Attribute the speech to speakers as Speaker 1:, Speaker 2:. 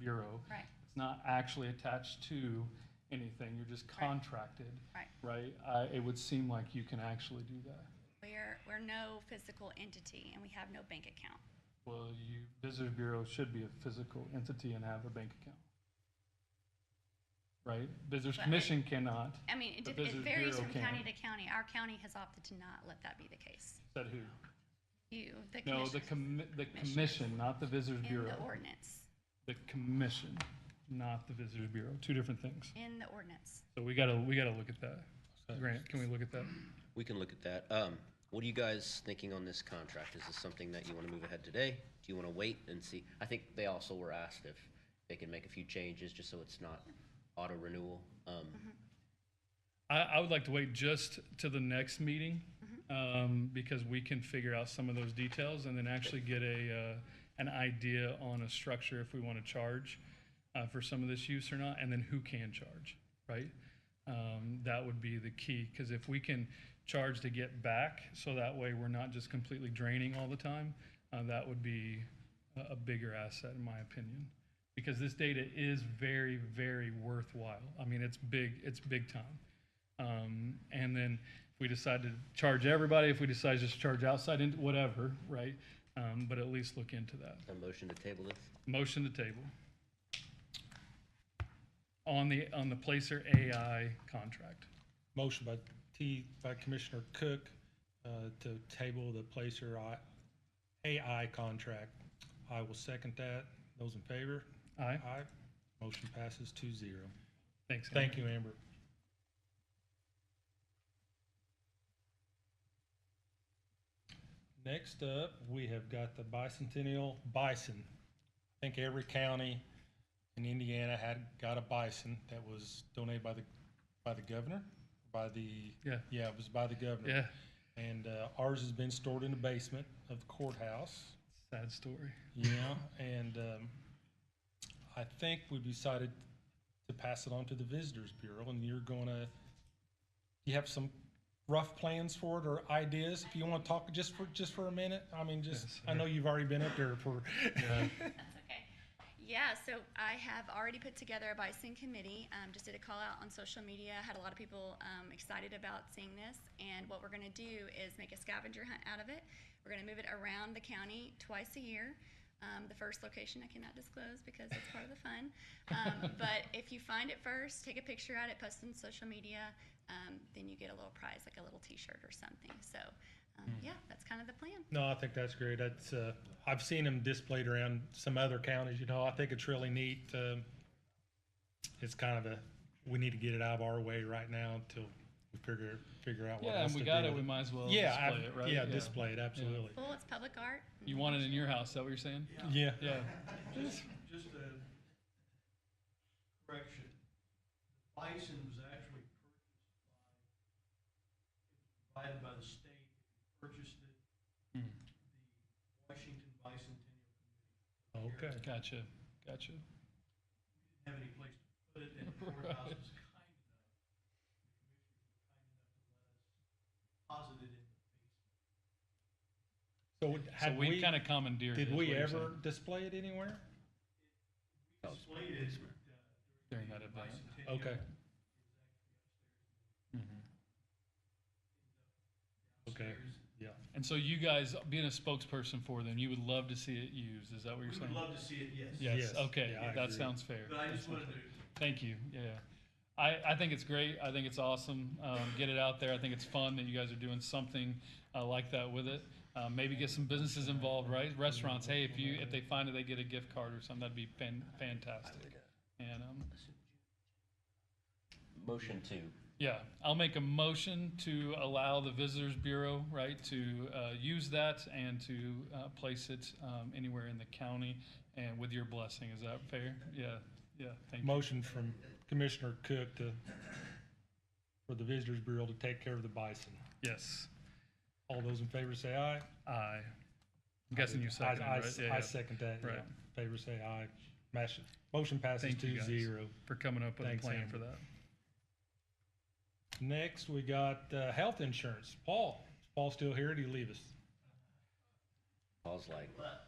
Speaker 1: bureau.
Speaker 2: Right.
Speaker 1: It's not actually attached to anything, you're just
Speaker 2: Right.
Speaker 1: contracted,
Speaker 2: Right.
Speaker 1: right? I, it would seem like you can actually do that.
Speaker 2: We're, we're no physical entity and we have no bank account.
Speaker 1: Well, you, visitor bureau should be a physical entity and have a bank account. Right? Visitors
Speaker 2: But I-
Speaker 1: commission cannot,
Speaker 2: I mean, it,
Speaker 1: The
Speaker 2: dif- it
Speaker 1: visitor
Speaker 2: varies
Speaker 1: bureau
Speaker 2: from county
Speaker 1: can.
Speaker 2: to county. Our county has opted to not let that be the case.
Speaker 1: said who?
Speaker 2: You, the
Speaker 1: No, the
Speaker 2: commissioners
Speaker 1: commi, the commission, not the visitors
Speaker 2: in
Speaker 1: bureau.
Speaker 2: the ordinance,
Speaker 1: The commission, not the visitors bureau, two different things.
Speaker 2: in the ordinance.
Speaker 1: So we gotta, we gotta look at that. Grant, can we look at that?
Speaker 3: We can look at that. Um, what are you guys thinking on this contract? Is this something that you want to move ahead today? Do you want to wait and see? I think they also were asked if they can make a few changes just so it's not auto renewal. Um,
Speaker 1: I, I would like to wait just to the next meeting, um, because we can figure out some of those details and then actually get a, uh, an idea on a structure if we want to charge, uh, for some of this use or not, and then who can charge, right? Um, that would be the key, because if we can charge to get back, so that way we're not just completely draining all the time, uh, that would be a, a bigger asset in my opinion. Because this data is very, very worthwhile. I mean, it's big, it's big time. Um, and then if we decide to charge everybody, if we decide just to charge outside, and whatever, right? Um, but at least look into that.
Speaker 3: a motion to table this?
Speaker 1: Motion to table. On the, on the Placer AI contract.
Speaker 4: Motion by T, by Commissioner Cook, uh, to table the Placer I, AI contract. I will second that. Those in favor?
Speaker 1: Aye,
Speaker 4: Aye. Motion passes two zero.
Speaker 1: thanks. Henry.
Speaker 4: Thank you, Amber. Next up, we have got the bicentennial bison. I think every county in Indiana had, got a bison that was donated by the, by the governor, by the,
Speaker 1: Yeah.
Speaker 4: yeah, it was by the governor.
Speaker 1: Yeah,
Speaker 4: And uh, ours has been stored in the basement of the courthouse.
Speaker 1: sad story.
Speaker 4: Yeah, and um, I think we decided to pass it on to the Visitors Bureau, and you're gonna, you have some rough plans for it or ideas? If you want to talk just for, just for a minute, I mean, just,
Speaker 1: Yes,
Speaker 4: I know you've already been up there for,
Speaker 2: That's okay. Yeah, so I have already put together a bison committee, um, just did a call out on social media, had a lot of people, um, excited about seeing this. And what we're gonna do is make a scavenger hunt out of it. We're gonna move it around the county twice a year. Um, the first location I cannot disclose because it's part of the fun. Um, but if you find it first, take a picture at it, post it on social media, um, then you get a little prize, like a little T-shirt or something. So, um, yeah, that's kind of the plan.
Speaker 4: no, I think that's great. That's, uh, I've seen them displayed around some other counties, you know, I think it's really neat. um, It's kind of a, we need to get it out of our way right now until we figure, figure out what
Speaker 1: Yeah, and
Speaker 4: else to
Speaker 1: we
Speaker 4: do.
Speaker 1: got it, we
Speaker 4: with
Speaker 1: might as well Oh, display
Speaker 4: Yeah, I-
Speaker 1: it, right?
Speaker 4: yeah, display it, absolutely.
Speaker 2: Cool, it's public art.
Speaker 1: You want it in your house, is that what you're saying?
Speaker 4: Yeah.
Speaker 1: Yeah,
Speaker 5: Just, just a correction. Bison was actually purchased by, provided by the state, purchased it, the
Speaker 1: Hmm.
Speaker 5: Washington Bicentennial
Speaker 4: Okay.
Speaker 1: gotcha, gotcha.
Speaker 5: didn't have any place to put it, and the courthouse was kind enough. the commissioners were Kind enough to let us deposit it in the basement.
Speaker 4: So
Speaker 1: So
Speaker 4: had
Speaker 1: we
Speaker 4: we,
Speaker 1: kind of commandeered it.
Speaker 4: did
Speaker 1: is
Speaker 4: we
Speaker 1: what you're
Speaker 4: ever
Speaker 1: saying,
Speaker 4: display it anywhere?
Speaker 5: We displayed it, uh,
Speaker 1: During that event.
Speaker 5: Bicentennial.
Speaker 4: Okay,
Speaker 1: Mhm.
Speaker 4: okay, yeah.
Speaker 1: And so you guys, being a spokesperson for them, you would love to see it used, is that what
Speaker 5: We
Speaker 1: you're
Speaker 5: would
Speaker 1: saying?
Speaker 5: love to see it, yes.
Speaker 1: Yes,
Speaker 4: Yes,
Speaker 1: okay,
Speaker 4: yeah, I
Speaker 1: that
Speaker 4: agree.
Speaker 1: sounds fair.
Speaker 5: But I
Speaker 1: That
Speaker 5: just
Speaker 1: sounds
Speaker 5: wanted
Speaker 1: fair.
Speaker 5: to
Speaker 1: Thank you, yeah. I, I think it's great, I think it's awesome, um, get it out there, I think it's fun that you guys are doing something, uh, like that with it. Uh, maybe get some businesses involved, right, restaurants, hey, if you, if they find it, they get a gift card or something, that'd be fan, fantastic. And, um,
Speaker 3: Motion to.
Speaker 1: yeah, I'll make a motion to allow the Visitors Bureau, right, to uh, use that and to uh, place it um, anywhere in the county and with your blessing. Is that fair? Yeah, yeah, thank you.
Speaker 4: Motion from Commissioner Cook to, for the Visitors Bureau to take care of the bison.
Speaker 1: Yes,
Speaker 4: All those in favor say aye.
Speaker 1: aye. I'm guessing you
Speaker 4: I-
Speaker 1: seconded,
Speaker 4: I-
Speaker 1: right? Yeah,
Speaker 4: I
Speaker 1: yeah.
Speaker 4: second that, yeah.
Speaker 1: Right.
Speaker 4: Favor say aye. Mash- Motion passes
Speaker 1: Thank you,
Speaker 4: two
Speaker 1: guys.
Speaker 4: zero.
Speaker 1: For coming up with a
Speaker 4: Thanks,
Speaker 1: plan for
Speaker 4: Amber.
Speaker 1: that.
Speaker 4: Next, we got, uh, health insurance. Paul, is Paul still here? or Did he leave us?
Speaker 3: Paul's like,
Speaker 5: But